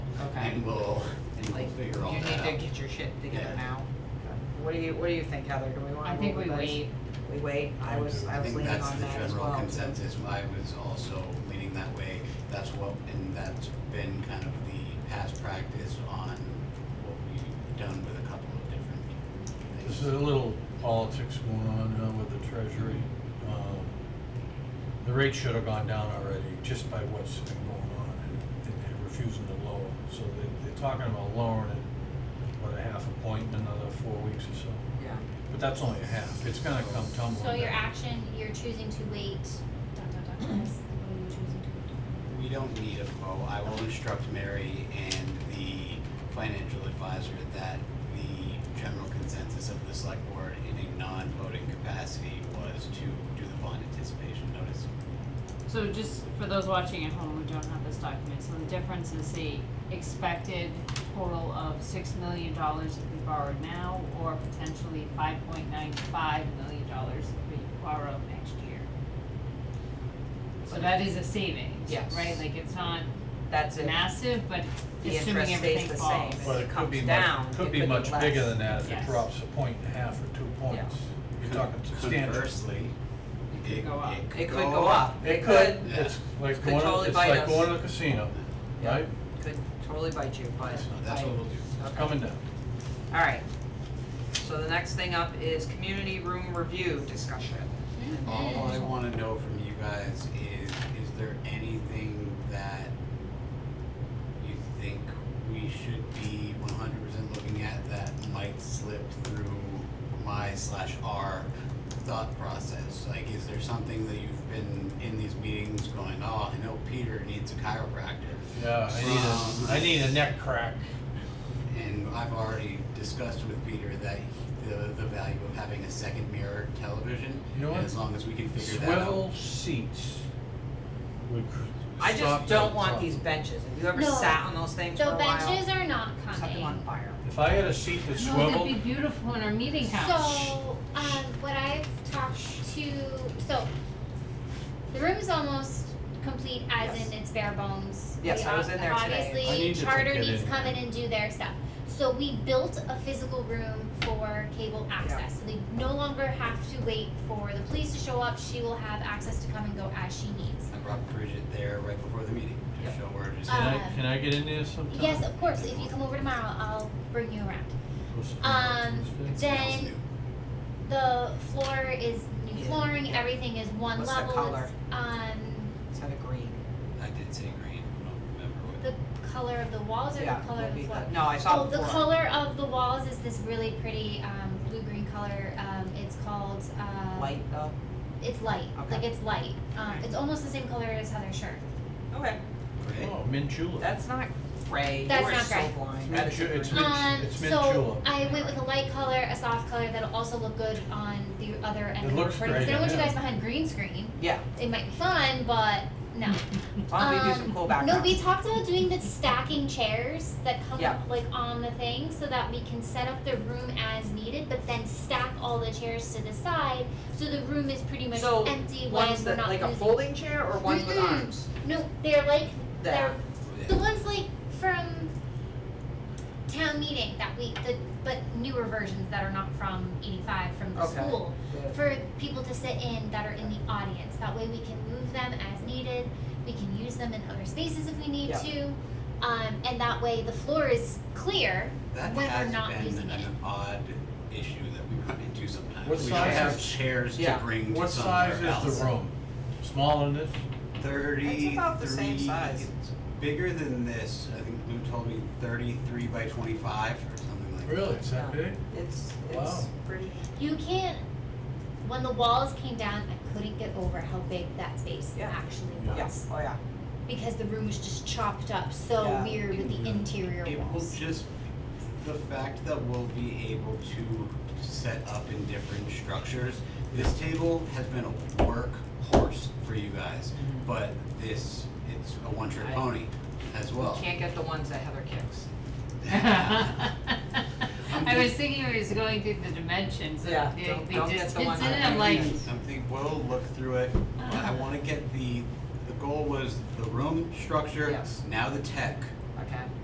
and we'll, and we'll Like, figure all you that need to out. get your shit together Yeah. now. What do you, what do you think, Heather? Do we I wanna think move we with this? wait, We wait, I was, I was think leaning on that as well. That's the general consensus, I was also leaning that way, that's what, and that's been kind of the past practice on what we've done with a couple of different There's things. a little politics going on now with the treasury. Um, The rate should have gone down already, just by what's been going on, and- and they're refusing to lower. So they, they're talking about lowering it, what, a half a point in another four weeks or so. Yeah, But that's only a half, it's gonna come tumbling So your down. action, you're choosing to wait, dot, dot, dot, what is- what are you choosing to wait? We don't need a vote, I will instruct Mary and the financial advisor that the general consensus of the select board in a non-voting capacity was to do the bond anticipation notice. So just for those watching at home who don't have this document, so the difference is the expected total of six million dollars if we borrow now, or potentially five point nine five million dollars if we borrow next year. So But that is a savings, Yes. right? Like it's not that's it. massive, but The assuming interest stays everything the falls. same. But it it could be comes much, down, it could be could be much bigger less. than that if it Yes. drops a point and a half or two points. You're talking substantial. Conversely, It could it, go up. it It could go up, it could, It's like Could going, to- totally it's bite like us. going to the casino, Yeah. right? could totally bite you, but, It's not- That's what we'll do. It's coming down. alright. So the next thing up is community room review discussion. Mm-hmm. Oh, All I Mm-hmm. wanna know from you guys is, is there anything that you think we should be one hundred percent looking at that might slip through my slash our thought process? Like, is there something that you've been in these meetings going, oh, I know Peter needs a chiropractor? Yeah, I need Um, a, I need a neck crack. And I've already discussed with Peter that the, the value of having a second mirror television. You know and what? As long as we can figure that out. Swivel seats would cr- I stop just that don't want problem. these benches, have you ever No. sat on those things for The a while? benches are not Set them on coming. fire. If I had a seat that No, that'd be swiveled, beautiful in our meeting house. So, um, what I've talked to, so the room is almost complete as in it's bare bones. Yes, We I was ob- in there today. I Obviously, need to charter get needs to in come there. in and do their stuff. So we built a physical room for cable access, so they no longer have to wait for the police to show up, she will have access to come and go as she needs. I brought Bridget there right before the meeting to Yep. show her just. can I, Uh, can I get in there sometime? Yes, of course, if you come over tomorrow, I'll bring you around. What's the- Um, It Tuesday? smells then- new. The floor is new Yeah. flooring, everything is one What's the level, color? it's, um, Set a green. I did say green, I don't remember what. the color of the walls or Yeah, the color would of the be floor? good. No, I saw Oh, the the floor. color of the walls is this really pretty, um, blue-green color, um, it's called, uh. Light though? It's light, Okay. like it's light, um, it's almost the same color as Heather's shirt. Okay, Great. Oh, mint julep. that's not gray, you That's are not so gray. blind, It's that mint is ju- a green. it's mint- it's mint Um, So julep. I went with a light color, a soft color that'll also look good on the other end It of the looks recording, 'cause great I don't want you on guys that. behind green screen, Yeah, it might be fun, but no. why don't we do some Um, cool No, background? we talked about doing the stacking chairs that come Yeah. up like on the thing so that we can set up the room as needed, but then stack all the chairs to the side so the room is pretty much So, empty when Ones we're that, not Mm-hmm. like a using- folding chair or ones with Mm-mm. arms? No, they're like That. they're Yeah. the ones like from town meeting that we the but newer versions that are not from eighty five from the Okay. school Yeah. for people to sit in that are in the audience. That way we can move them as needed. We can use them in other spaces if we need Yeah. to. Um, and that way the floor is clear That when has we're not been using it. an odd issue that we run into sometimes. What We don't size have is- chairs to Yeah. bring to What size somewhere is else. the room? Smaller than this? Thirty-three. It's about the same size. It's bigger than this, I think Lou told me thirty-three by twenty-five or something like that. Really, it's that Yeah. big? It's, it's Wow. pretty, You can't when the walls came down, I couldn't get over how big that space Yeah. actually was. yeah, oh yeah, Because the room was just chopped up so Yeah. weird with the Yeah. interior It will walls. just, the fact that we'll be able to set up in different structures, this table has been a workhorse for you guys, Mhm. but this, it's a one trick I- pony as well. can't get the ones that Heather kicks. I was thinking we was going through the dimensions of Yeah, the, don't- the don't get the distance, one and that- I'm like, I'm thinking, we'll look through it, but I wanna get the, the goal was the room structure, Yes. now the tech. Okay.